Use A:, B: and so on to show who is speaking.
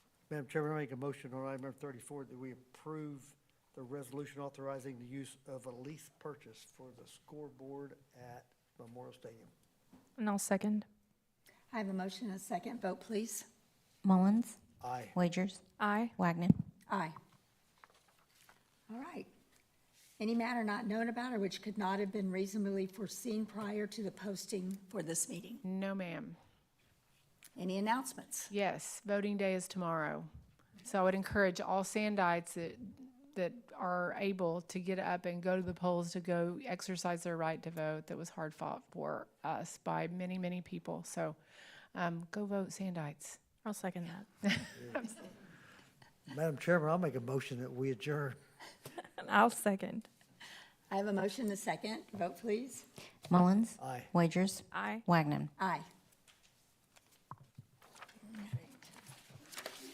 A: Madam Chairman, I make a motion on item number thirty-four that we approve the resolution authorizing the use of a lease purchase for the scoreboard at Memorial Stadium.
B: And I'll second.
C: I have a motion and a second. Vote, please.
D: Mullins,
A: Aye.
D: Wagers,
B: Aye.
D: Wagner.
C: Aye. All right. Any matter not known about or which could not have been reasonably foreseen prior to the posting for this meeting.
E: No, ma'am.
C: Any announcements?
E: Yes, voting day is tomorrow. So I would encourage all Sandites that, that are able to get up and go to the polls to go exercise their right to vote that was hard fought for us by many, many people. So um, go vote Sandites.
B: I'll second that.
A: Madam Chairman, I'll make a motion that we adjourn.
B: And I'll second.
C: I have a motion and a second. Vote, please.
D: Mullins,
A: Aye.
D: Wagers,
B: Aye.
D: Wagner.
C: Aye.